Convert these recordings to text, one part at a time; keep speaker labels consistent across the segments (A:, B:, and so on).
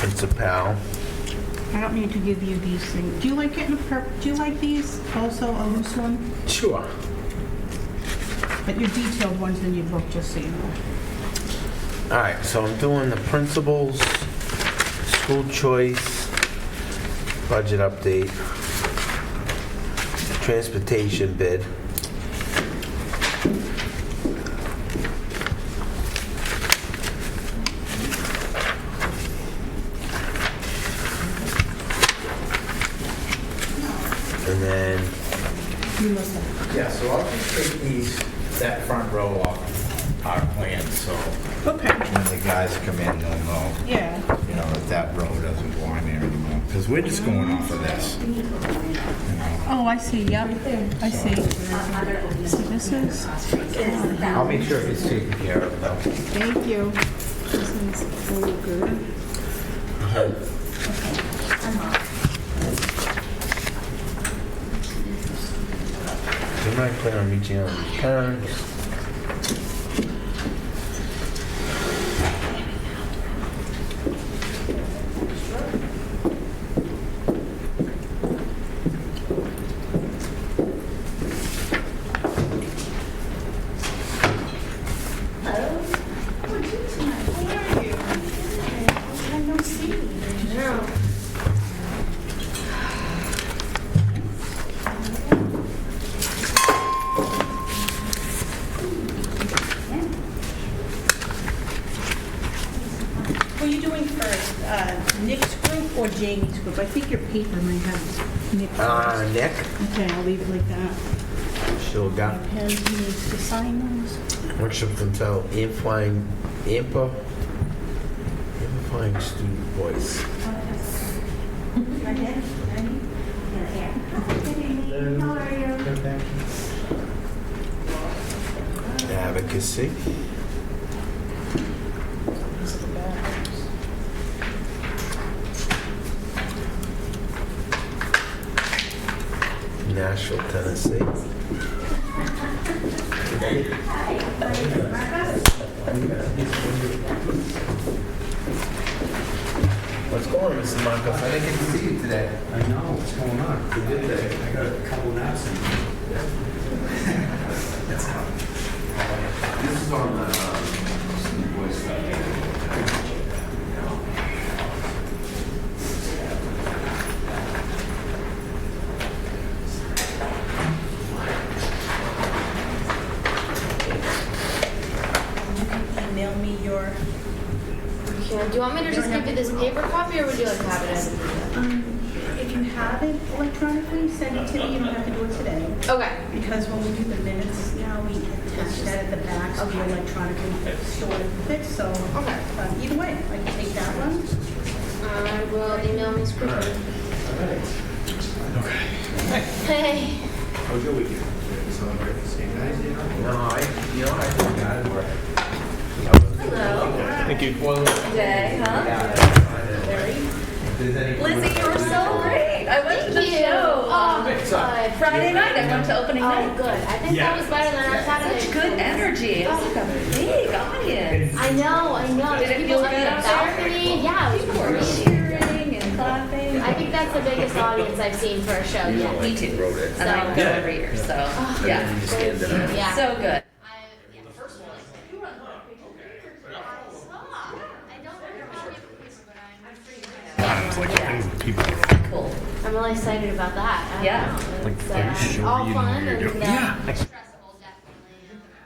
A: PayPal.
B: I don't need to give you these things. Do you like getting a per, do you like these? Also a loose one?
A: Sure.
B: But your detailed ones in your book, just so you know.
A: All right, so I'm doing the principals, school choice, budget update, transportation bid. And then,
B: You listen.
C: Yeah, so I'll just take these, that front row off our plan, so
B: Okay,
C: when the guys come in, they'll know,
B: yeah.
C: you know, that that row doesn't belong there anymore. Because we're just going off of this. you know.
B: Oh, I see, yep, I see. See, this is,
C: I'll make sure it's taken care of, though.
B: thank you. This is all good.
A: you might plan on reaching out to parents.
B: What are you doing first, uh, Nick's group or Jamie's group? I think your paper might have Nick
A: Uh,
B: first.
A: Nick?
B: Okay, I'll leave it like that.
A: Sure, got
B: Pen needs to sign those.
A: workshops entitled Amplifying, Ampa, Amplifying Student Voice. Advocacy. Nashville, Tennessee. What's going on, Mr. Marcos? I didn't get to see you today.
D: I know, what's going on? I did that. I got a couple naps in.
E: This is on the Steve Boyce
B: Email me your,
F: Here, do you want me to just give you this paper copy, or would you like to have it as an email?
B: um, if you have it electronically, send it to me. You don't have to do it today.
F: Okay,
B: Because when we do the minutes now, we attach that at the back of the electronic stored it, so
F: okay.
B: um, either way, I can take that one.
F: I will Uh, email Miss Griffin. Okay. Hey,
C: How's your weekend? Celebrate the same guys, you know?
A: No, I, you know, I forgot where.
F: hello.
A: Thank you. Well,
G: Day, huh?
A: if there's any-
G: Lizzie, you were so great. I went to the
F: Thank you.
G: show.
F: Oh,
G: on
F: good.
G: Friday night, I went to opening
F: Oh,
G: night.
F: good. I think that was better than our Saturday.
G: Such good energy. It was like a big audience.
F: I know, I know.
G: Did it
F: People
G: feel
F: up
G: good
F: the
G: out there?
F: balcony. Yeah, it was
G: People were
F: great.
G: cheering and clapping.
F: I think that's the biggest audience I've seen for a show yet.
G: Me too. And I go every year, so, yeah.
F: Yeah.
G: So
F: I-
G: good.
F: yeah, first one. You were on the paper. I saw. I don't remember if it was, but I'm pretty sure.
G: Cool.
F: I'm really excited about that. I don't
G: Yeah.
F: know. It's, uh, all fun and uh, stressful,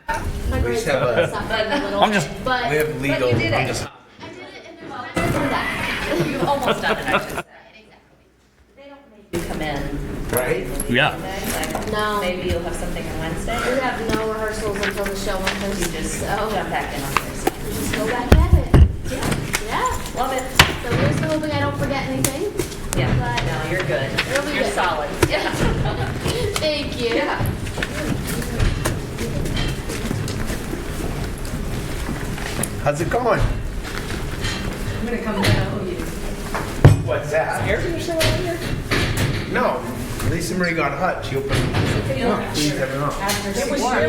F: definitely.
A: We
F: My
A: just
F: grades
A: have a-
F: suffered a little bit, but
A: We have
G: But you
A: legal.
G: did it.
F: I did it and there's benefits in that.
G: You've almost done it, I should
F: Right,
G: say.
F: exactly. They don't make
G: You come in.
A: Right?
G: Yeah.
F: No.
G: Maybe you'll have something on
F: We
G: Wednesday.
F: have no rehearsals until the show on
G: You
F: Thursday,
G: just
F: so
G: jump back in on Thursday.
F: we just oh, go back at it.
G: Yeah.
F: Yeah.
G: Love it.
F: So we're just hoping I don't forget anything.
G: Yeah, no, you're good.
F: It'll be
G: You're
F: good.
G: solid. Yeah.
F: Thank you.
G: Yeah.
A: How's it going?
C: What's that? Air conditioning on here?
A: No, Lisa Marie got hot. She opened. She's having off.
B: It was